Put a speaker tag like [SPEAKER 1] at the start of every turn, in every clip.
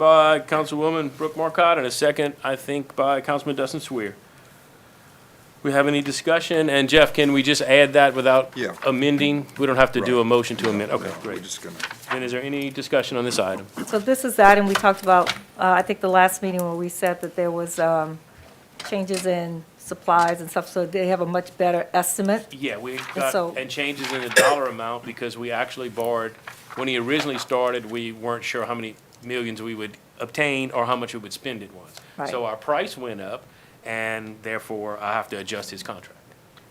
[SPEAKER 1] by Councilwoman Brooke Marcotte, and a second, I think, by Councilman Dustin Sweer. We have any discussion? And Jeff, can we just add that without
[SPEAKER 2] Yeah.
[SPEAKER 1] amending? We don't have to do a
[SPEAKER 2] Right.
[SPEAKER 1] motion to amend. Okay,
[SPEAKER 2] No, We're
[SPEAKER 1] great.
[SPEAKER 2] just gonna,
[SPEAKER 1] Then is there any discussion on this item?
[SPEAKER 3] So this is that, and we talked about, uh, I think the last meeting where we said that there was um, changes in supplies and stuff, so they have a much better estimate.
[SPEAKER 1] Yeah, we
[SPEAKER 3] so-
[SPEAKER 1] got, and changes in the dollar amount because we actually borrowed, when he originally started, we weren't sure how many millions we would obtain or how much we would spend at once.
[SPEAKER 3] Right.
[SPEAKER 1] So our price went up and therefore I have to adjust his contract.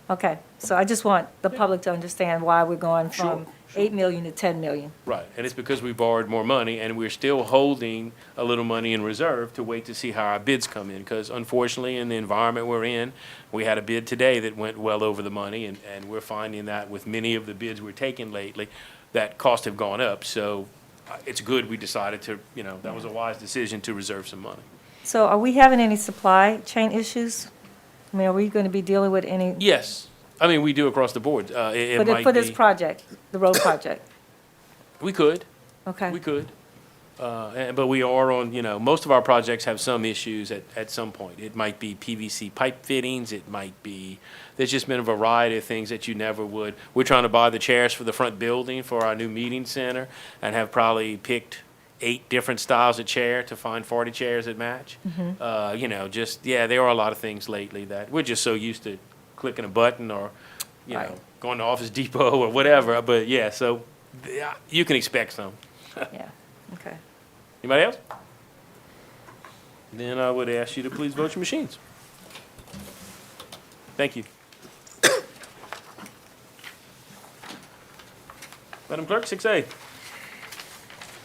[SPEAKER 3] Okay, so I just want the public to understand why we're going
[SPEAKER 1] Sure,
[SPEAKER 3] from 8 million to 10 million.
[SPEAKER 1] Right, and it's because we borrowed more money and we're still holding a little money in reserve to wait to see how our bids come in. Because unfortunately, in the environment we're in, we had a bid today that went well over the money and, and we're finding that with many of the bids we're taking lately, that costs have gone up. So uh, it's good we decided to, you know, that was a wise decision to reserve some money.
[SPEAKER 3] So are we having any supply chain issues? I mean, are we going to be dealing with any?
[SPEAKER 1] Yes, I mean, we do across the board. Uh, it, it
[SPEAKER 3] But For
[SPEAKER 1] might
[SPEAKER 3] this
[SPEAKER 1] be,
[SPEAKER 3] project, the road project,
[SPEAKER 1] we could.
[SPEAKER 3] okay?
[SPEAKER 1] We could. Uh, eh, But we are on, you know, most of our projects have some issues at, at some point. It might be PVC pipe fittings, it might be, there's just been a variety of things that you never would. We're trying to buy the chairs for the front building for our new meeting center and have probably picked eight different styles of chair to find 40 chairs that match.
[SPEAKER 3] Mm-hmm.
[SPEAKER 1] Uh, You know, just, yeah, there are a lot of things lately that, we're just so used to clicking a button or, you know,
[SPEAKER 3] Right.
[SPEAKER 1] going to Office Depot or whatever, but yeah, so th- you can expect some.
[SPEAKER 3] Yeah, okay.
[SPEAKER 1] Anybody else? Then I would ask you to please vote your machines. Thank you. Madam Clerk, six A.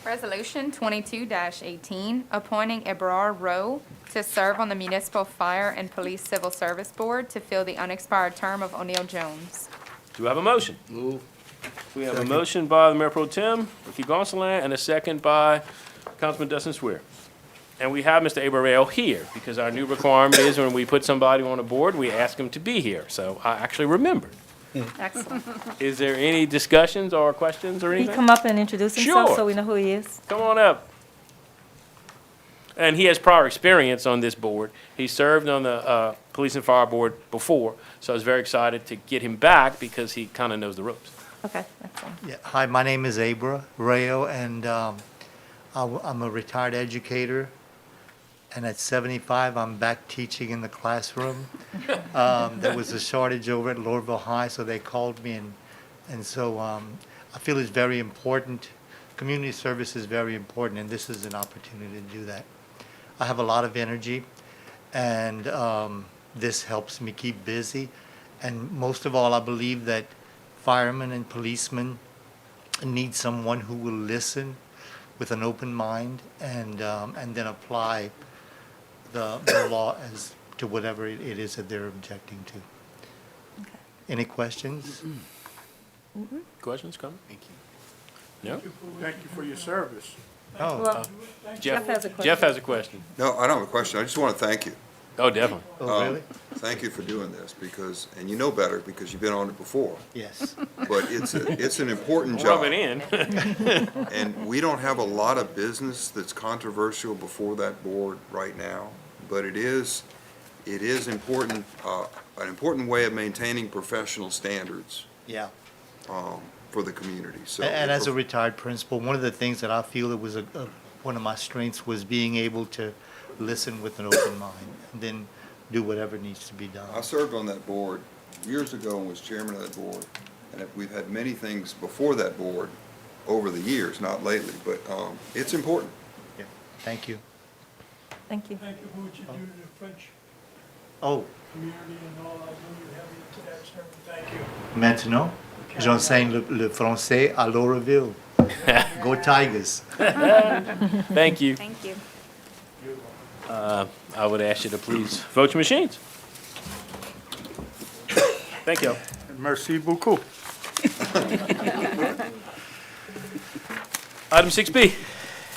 [SPEAKER 4] Resolution twenty-two eighteen, appointing Eberard Rowe to serve on the Municipal Fire and Police Civil Service Board to fill the unexpired term of O'Neill Jones.
[SPEAKER 1] Do we have a motion? Move. We have a motion by the Mayor Pro Tem, Ricky Gonsalas, and a second by Councilman Dustin Swear. And we have Mr. Abarel here, because our new requirement is when we put somebody on a board, we ask them to be here. So I actually remembered.
[SPEAKER 3] Excellent.
[SPEAKER 1] Is there any discussions or questions or
[SPEAKER 3] He
[SPEAKER 1] anything?
[SPEAKER 3] come up and introduce himself
[SPEAKER 1] Sure.
[SPEAKER 3] so we know who he is?
[SPEAKER 1] Come on up. And he has prior experience on this board. He served on the uh, Police and Fire Board before, so I was very excited to get him back because he kind of knows the ropes.
[SPEAKER 3] Okay, excellent.
[SPEAKER 5] Yeah, hi, my name is Abra Rayo, and um, I w- I'm a retired educator. And at 75, I'm back teaching in the classroom. Um, There was a shortage over at Lordville High, so they called me, and, and so um, I feel it's very important. Community service is very important, and this is an opportunity to do that. I have a lot of energy, and um, this helps me keep busy. And most of all, I believe that firemen and policemen need someone who will listen with an open mind and um, and then apply the, the law as to whatever it, it is that they're objecting to. Any questions?
[SPEAKER 1] Questions, comments? Mm-hmm. Thank you. No?
[SPEAKER 6] Thank you for your service.
[SPEAKER 5] Oh,
[SPEAKER 3] Well, Jeff has a
[SPEAKER 1] Jeff
[SPEAKER 3] question.
[SPEAKER 1] has a question.
[SPEAKER 2] no, I don't have a question. I just want to thank you. Um,
[SPEAKER 1] Oh, definitely.
[SPEAKER 5] oh, really?
[SPEAKER 2] Thank you for doing this because, and you know better because you've been on it before.
[SPEAKER 5] Yes.
[SPEAKER 2] But it's, a it's an important
[SPEAKER 1] Rub
[SPEAKER 2] job.
[SPEAKER 1] it in.
[SPEAKER 2] And we don't have a lot of business that's controversial before that board right now. But it is, it is important, uh, an important way of maintaining professional standards
[SPEAKER 5] Yeah.
[SPEAKER 2] um, for the community, so.
[SPEAKER 5] A- And as a retired principal, one of the things that I feel it was a, a, one of my strengths was being able to listen with an open mind and then do whatever needs to be done.
[SPEAKER 2] I served on that board years ago and was chairman of that board, and if- we've had many things before that board over the years, not lately, but um, it's important.
[SPEAKER 5] Yeah. Thank you.
[SPEAKER 3] Thank you.
[SPEAKER 6] Thank you for what you do to the French
[SPEAKER 5] Oh,
[SPEAKER 6] community and all. I know you have it to that service. Thank you.
[SPEAKER 5] Maintenant, j'enseigne le, le français à Lauraville. Go Tigers.
[SPEAKER 1] Thank you.
[SPEAKER 4] Thank you.
[SPEAKER 1] I would ask you to please vote your machines. Thank you.
[SPEAKER 6] Merci beaucoup.
[SPEAKER 1] Item six B.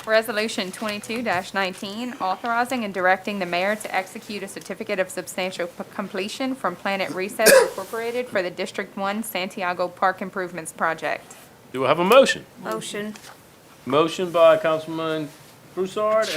[SPEAKER 4] Resolution twenty-two nineteen, authorizing and directing the mayor to execute a certificate of substantial p- completion from Planet Recess Incorporated for the District One Santiago Park Improvements Project.
[SPEAKER 1] Do I have a motion?
[SPEAKER 4] Motion.
[SPEAKER 1] Motion by Councilman Broussard